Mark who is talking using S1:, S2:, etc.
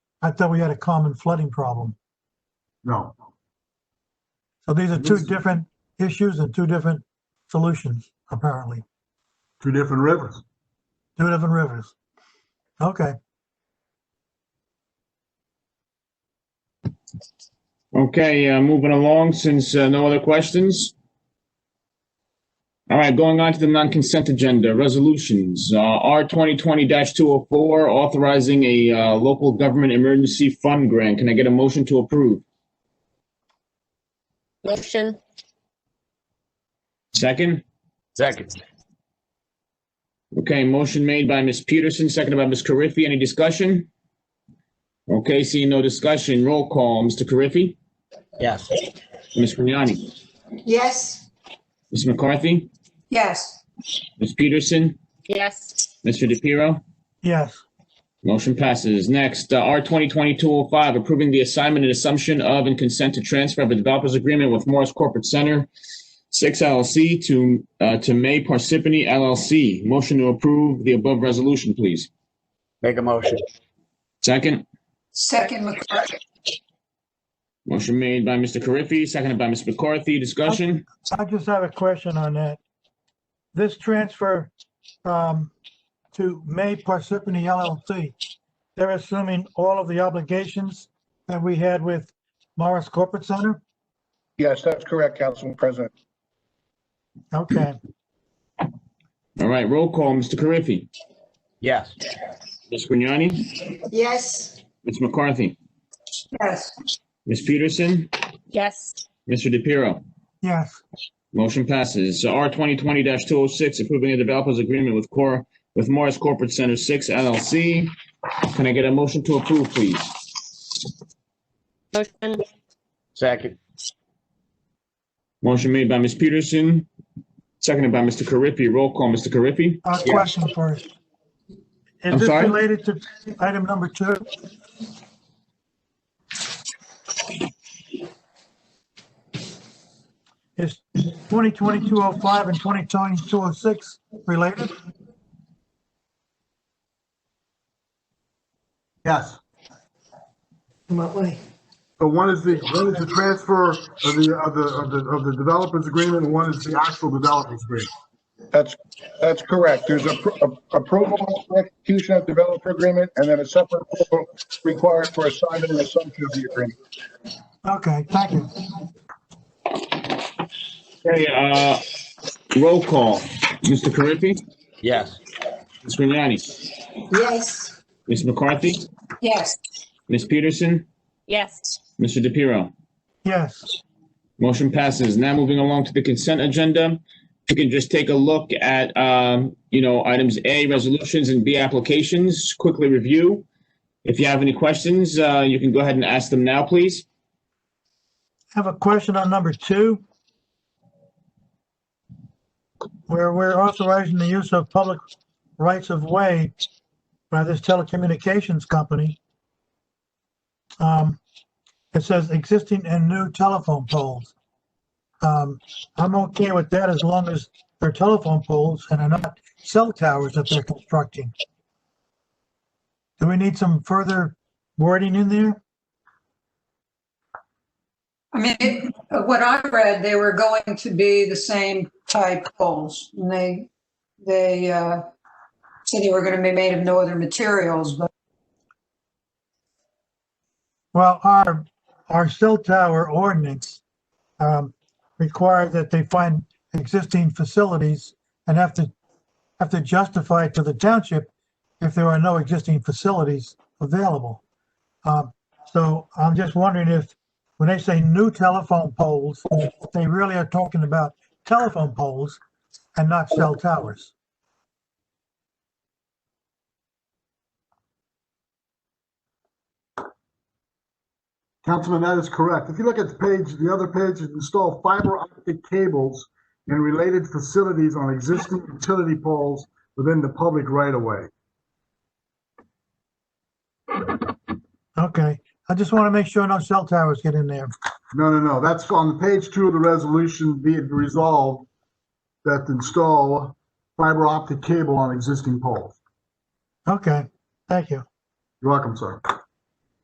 S1: I thought we had a common flooding problem.
S2: No,
S1: So these are two
S2: Yes.
S1: different issues and two different solutions, apparently.
S2: two different rivers.
S1: Two different rivers. Okay,
S3: Okay, uh, moving along, since uh, no other questions. All right, going on to the non-consent agenda, resolutions. Uh, R 2020-204, authorizing a uh, local government emergency fund grant. Can I get a motion to approve?
S4: Motion,
S3: Second?
S5: Second.
S3: Okay, motion made by Ms. Peterson, seconded by Ms. Carriffy. Any discussion? Okay, seeing no discussion, roll call. Mr. Carriffy?
S5: Yes.
S3: Ms. Grignani?
S6: Yes.
S3: Ms. McCarthy?
S6: Yes.
S3: Ms. Peterson?
S4: yes.
S3: Mr. DePiero?
S1: yes,
S3: Motion passes. Next, uh, R 2020-205, approving the assignment and assumption of and consent to transfer of a developer's agreement with Morris Corporate Center, 6 LLC to, uh, to May Parsippany LLC. Motion to approve the above resolution, please.
S5: Make a motion.
S3: Second,
S6: Second McCarthy.
S3: motion made by Mr. Carriffy, seconded by Ms. McCarthy. Discussion?
S1: I just have a question on that. This transfer um, to May Parsippany LLC, they're assuming all of the obligations that we had with Morris Corporate Center?
S7: Yes, that's correct, Council President.
S1: Okay,
S3: All right, roll call, Mr. Carriffy.
S5: Yes.
S3: Ms. Grignani?
S6: Yes.
S3: Ms. McCarthy?
S6: Yes.
S3: Ms. Peterson?
S4: Yes,
S3: Mr. DePiero?
S1: yes,
S3: Motion passes. R twenty twenty two oh six, approving the developer's agreement with Cora, with Morris Corporate Center Six LLC. Can I get a motion to approve, please?
S4: motion,
S5: Second.
S3: Motion made by Ms. Peterson, seconded by Mr. Carriffy. Roll call, Mr. Carriffy?
S1: a question first.
S3: I'm
S1: Is this
S3: sorry?
S1: related to item number two? Is 202205 and 202206 related?
S2: Yes.
S6: In what way?
S2: So one is the, one is the transfer of the, of the, of the, of the developers agreement, and one is the actual developers agreement.
S7: That's, that's correct. There's appro- approval for execution of developer agreement and then a separate approval required for assignment and assumption of the agreement.
S1: Okay, thank you.
S3: Okay, uh, roll call. Mr. Carriffy?
S5: Yes.
S3: Ms. Grignani?
S6: Yes.
S3: Ms. McCarthy?
S6: Yes.
S3: Ms. Peterson?
S4: yes.
S3: Mr. DePiero?
S1: Yes,
S3: Motion passes. Now moving along to the consent agenda. If you can just take a look at, um, you know, items A, resolutions, and B, applications, quickly review. If you have any questions, uh, you can go ahead and ask them now, please.
S1: have a question on number two. Where we're authorizing the use of public rights of way by this telecommunications company. Um, It says existing and new telephone poles. Um, I'm okay with that as long as they're telephone poles and are not cell towers that they're constructing. Do we need some further wording in there?
S8: I mean, it- uh, what I read, they were going to be the same type poles. And they, they uh, said they were going to be made of no other materials, but
S1: Well, our, our cell tower ordinance um, require that they find existing facilities and have to, have to justify to the township if there are no existing facilities available. Um, So I'm just wondering if, when they say new telephone poles, if they really are talking about telephone poles and not cell towers.
S2: Councilman, that is correct. If you look at the page, the other page, is install fiber optic cables and related facilities on existing utility poles within the public right of way.
S1: Okay, I just want to make sure no cell towers get in there.
S2: No, no, no, that's on page two of the resolution, be it resolved that install fiber optic cable on existing poles.
S1: Okay, thank you.
S2: You're welcome, sir.